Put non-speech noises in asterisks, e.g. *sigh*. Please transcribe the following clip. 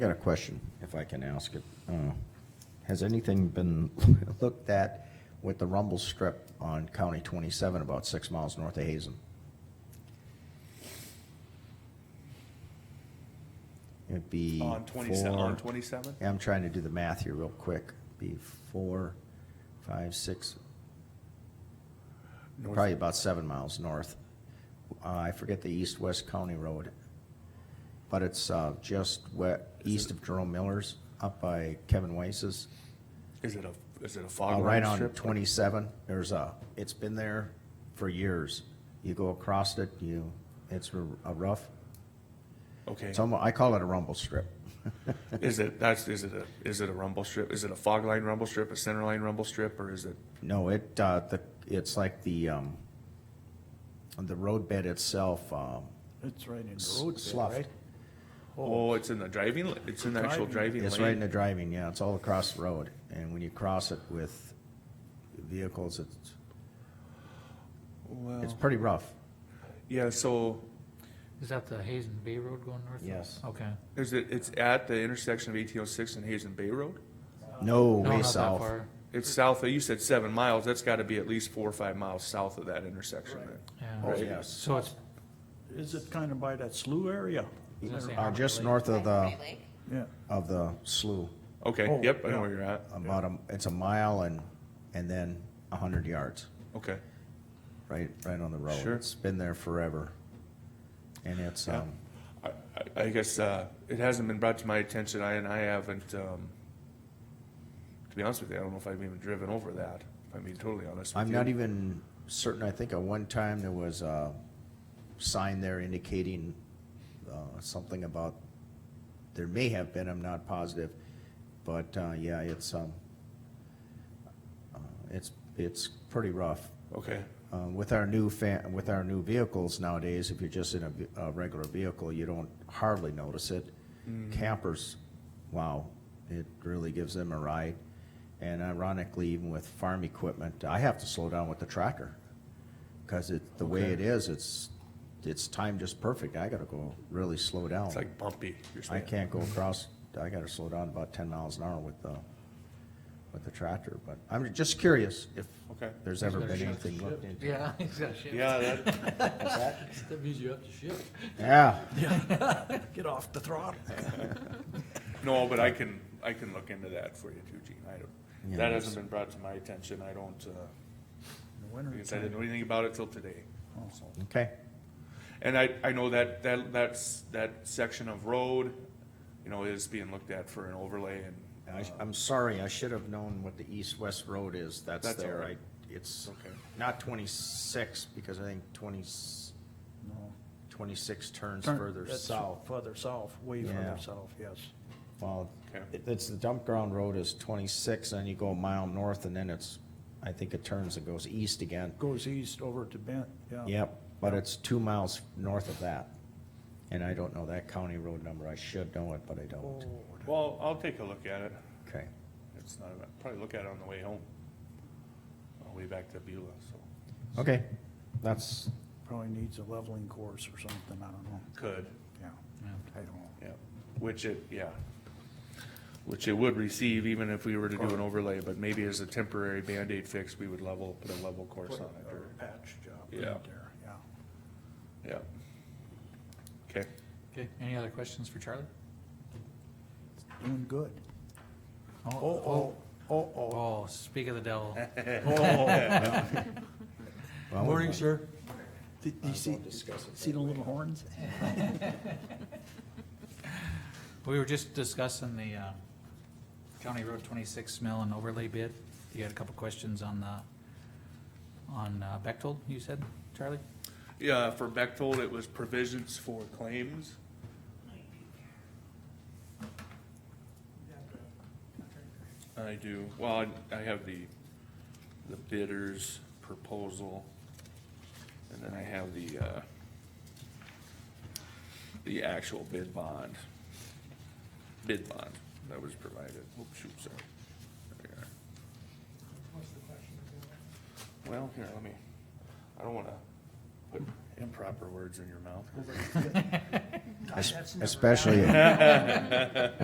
Got a question, if I can ask it. Uh, Has anything been *laughs* looked at with the rumble strip on County 27, about six miles north of Hazen? It'd be On twenty-seven, on four- twenty-seven? Yeah, I'm trying to do the math here real quick. Be four, five, six, probably about seven miles north. Uh, I forget the east-west county road, but it's uh, just we- east of Jerome Miller's, up by Kevin Wace's. Is it a, is it a Uh, fog Right line on strip? twenty-seven, there's a, it's been there for years. You go across it, you, it's a a rough, Okay, it's almost, I call it a rumble strip. is it, that's, is it a, is it a rumble strip? Is it a fog line rumble strip, a center line rumble strip, or is it? No, it, uh, the, it's like the, um, the road bed itself, um, It's right in S- the road bed, sloughed. right? Oh, it's in the driving, la- it's in the actual driving It's right in lane. the driving, yeah, it's all across the road, and when you cross it with vehicles, it's, it's Well, pretty rough. yeah, so Is that the Hazen Bay Road going north? Yes. Okay. is it, it's at the intersection of eighteen oh six and Hazen Bay Road? No No, not way that south. far. It's south, of- you said seven miles, that's gotta be at least four or five miles south of that intersection then. Oh, Yeah. Right. yes, So it's, Is it kind of by that slough area? I was gonna say, uh, Harmony just Lake. north of the, Right, Lake? Yeah, of the slough, Okay, Oh, yep, I know yeah. where you're at, about a, it's a mile and, and then a hundred yards, okay. right, right on the road. Sure. It's been there forever, and it's, Yeah. um, I, I- I guess, uh, it hasn't been brought to my attention, I, and I haven't, um, to be honest with you, I don't know if I've even driven over that, if I'm being totally honest with I'm you. not even certain, I think at one time there was a sign there indicating uh, something about, there may have been, I'm not positive, but uh, yeah, it's, um, uh, it's, it's pretty rough. Okay, Uh, With our new fa, with our new vehicles nowadays, if you're just in a, ve- a regular vehicle, you don't hardly notice it. Mm-hmm. Campers, wow, it really gives them a ride. And ironically, even with farm equipment, I have to slow down with the tractor. Cause it, the way Okay. it is, it's, it's timed just perfect. I gotta go really slow down. it's like Mm-hmm. bumpy, you're I saying. can't go across, I gotta slow down about ten miles an hour with the, with the tractor, but I'm just curious if Okay. there's ever He's gotta been shift. anything looked into. Yeah, *laughs* he's got shift. Yeah, that, That means you have to shift. Yeah, get off the throttle. no, but I can, I can look into that for you too, Gene, I Yeah, don't, that that's- hasn't been brought to my attention, I don't, uh, In the winter because I didn't time. know anything about it till today, so. okay. And I, I know that, that, that's, that section of road, you know, is being looked at for an overlay and. uh, I sh- I'm sorry, I should have known what the east-west road is, that's That's all there, I, right. it's Okay. not twenty-six, because I think 20 26 No. turns Turn- further that's south. Further south, way Yeah. further south, yes. Well, Okay. it- it's, the dump ground road is twenty-six, and you go a mile north, and then it's, I think it turns and goes east again. Goes east over to Bent, yeah. Yep, but it's two miles north of that, and I don't know that county road number, I should know it, but I don't. Oh, Well, I'll take a look at it. Okay, It's not, I'll probably look at it on the way home, on the way back to Beulah, so. okay, that's, Probably needs a leveling course or something, I don't know, Could, yeah, Yeah. I don't know. yeah, which it, yeah. Which it would receive even if we were to do an overlay, but maybe as a temporary Band-Aid fix, we would level, put a level course on it, or, Or patch job Yeah. right there, yeah. yeah. Okay, Okay, any other questions for Charlie? Doing good. Oh, Oh, oh, oh, Oh, speak of the devil. oh, oh. well, we Morning, might- sir. Did you see, won't discuss it see the little horns? We were just discussing the, uh, County Road twenty-six mill and overlay bid. You had a couple questions on the, on uh, Bechtold, you said, Charlie? yeah, for Bechtold, it was provisions for claims. I do, well, I- I have the, the bidder's proposal, and then I have the, uh, the actual bid bond, bid bond that was provided, oh, shoot, sorry. There we are. Well, here, let me, I don't wanna put improper words in your mouth. es- Especially.